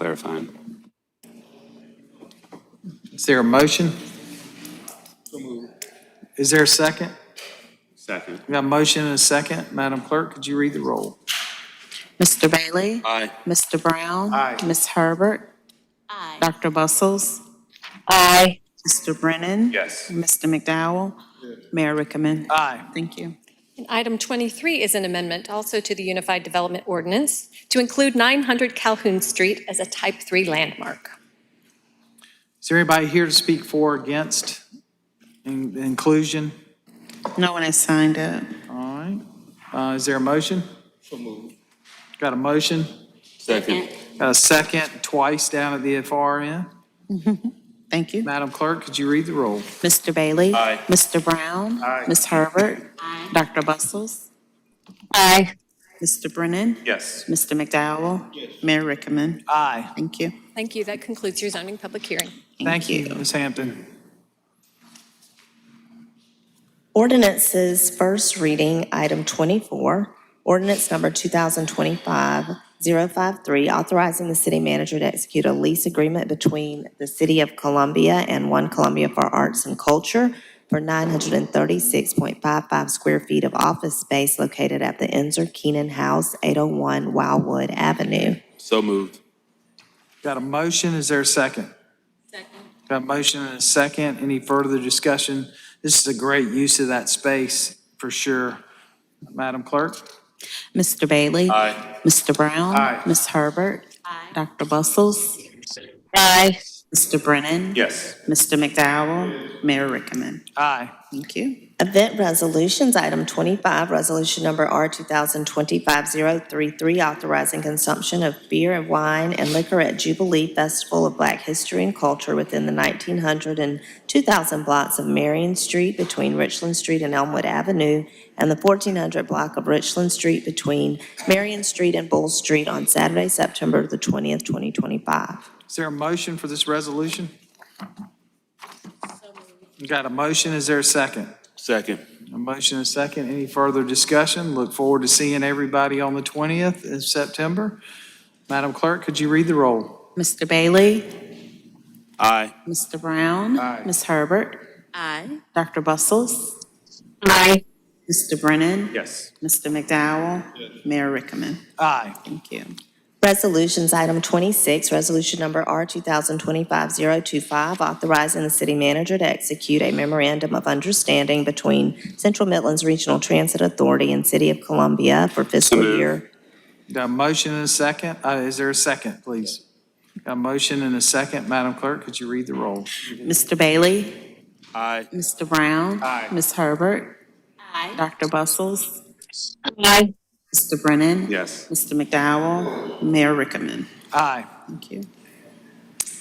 clarifying. Is there a motion? Is there a second? Second. We got a motion and a second. Madam Clerk, could you read the roll? Mr. Bailey? Aye. Mr. Brown? Aye. Ms. Herbert? Aye. Dr. Bustles? Aye. Mr. Brennan? Yes. Mr. McDowell? Mayor Rickaman? Aye. Thank you. And item 23 is an amendment also to the Unified Development Ordinance to include 900 Calhoun Street as a Type 3 landmark. Is there anybody here to speak for or against in- inclusion? No one has signed up. All right. Uh, Is there a motion? Got a motion? Second. Got a second, twice down at the FRN. Thank you. Madam Clerk, could you read the roll? Mr. Bailey? Aye. Mr. Brown? Aye. Ms. Herbert? Aye. Dr. Bustles? Aye. Mr. Brennan? Yes. Mr. McDowell? Yes. Mayor Rickaman? Aye. Thank you. Thank you. That concludes your zoning public hearing. Thank you, Ms. Hampton. Ordinances, first reading, item 24, ordinance number 2025-053, authorizing the city manager to execute a lease agreement between the City of Columbia and One Columbia for Arts and Culture for 936.55 square feet of office space located at the Enzer Keenan House, 801 Wildwood Avenue. So moved. Got a motion, is there a second? Second. Got a motion and a second, any further discussion? This is a great use of that space, for sure. Madam Clerk? Mr. Bailey? Aye. Mr. Brown? Aye. Ms. Herbert? Aye. Dr. Bustles? Aye. Mr. Brennan? Yes. Mr. McDowell? Mayor Rickaman? Aye. Thank you. Event resolutions, item 25, resolution number R 2025-033, authorizing consumption of beer and wine and liquor at Jubilee Festival of Black History and Culture within the 1900 and 2000 blocks of Marion Street between Richland Street and Elmwood Avenue, and the 1400 block of Richland Street between Marion Street and Bull Street on Saturday, September the 20th, 2025. Is there a motion for this resolution? Got a motion, is there a second? Second. A motion and a second, any further discussion? Look forward to seeing everybody on the 20th of September. Madam Clerk, could you read the roll? Mr. Bailey? Aye. Mr. Brown? Aye. Ms. Herbert? Aye. Dr. Bustles? Aye. Mr. Brennan? Yes. Mr. McDowell? Mayor Rickaman? Aye. Thank you. Resolutions, item 26, resolution number R 2025-025, authorizing the city manager to execute a memorandum of understanding between Central Midlands Regional Transit Authority and City of Columbia for So fiscal moved. year. Got a motion and a second, uh, is there a second, please? Got a motion and a second, Madam Clerk, could you read the roll? Mr. Bailey? Aye. Mr. Brown? Aye. Ms. Herbert? Aye. Dr. Bustles? Aye. Mr. Brennan? Yes. Mr. McDowell? Mayor Rickaman? Aye. Thank you.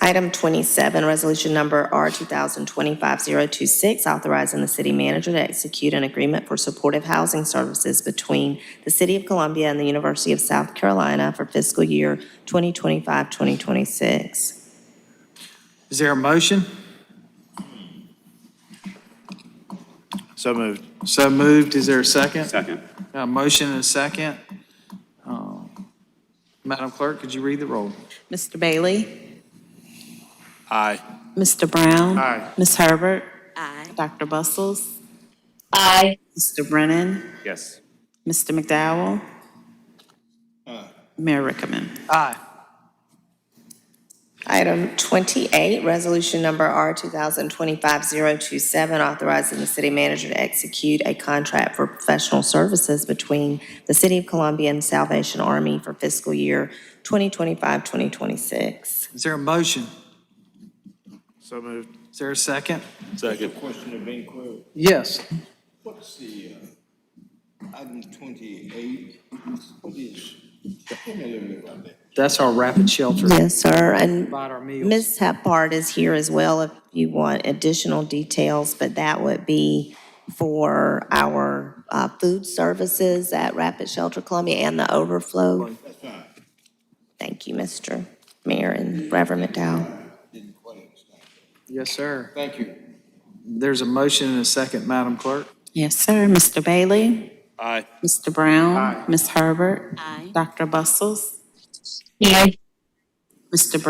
Item 27, resolution number R 2025-026, authorizing the city manager to execute an agreement for supportive housing services between the City of Columbia and the University of South Carolina for fiscal year 2025-2026. Is there a motion? So moved. So moved, is there a second? Second. Got a motion and a second. Uh, Madam Clerk, could you read the roll? Mr. Bailey? Aye. Mr. Brown? Aye. Ms. Herbert? Aye. Dr. Bustles? Aye. Mr. Brennan? Yes. Mr. McDowell? Mayor Rickaman? Aye. Item 28, resolution number R 2025-027, authorizing the city manager to execute a contract for professional services between the City of Columbia and Salvation Army for fiscal year 2025-2026. Is there a motion? So moved. Is there a second? Second. Question of inquiry, Yes. what's the, uh, item twenty-eight, what is, tell me a little bit about that. That's our rapid shelter. Yes, sir, and About our meals. Ms. Hepburn is here as well if you want additional details, but that would be for our uh, food services at Rapid Shelter Columbia and the overflow. Thank you, Mr. Mayor and Reverend McDowell. Didn't quite understand. Yes, sir. Thank you. There's a motion and a second, Madam Clerk. Yes, sir. Mr. Bailey? Aye. Mr. Brown? Miss Ms. Herbert? Aye. Dr. Bustles? Aye. Mr. Brown?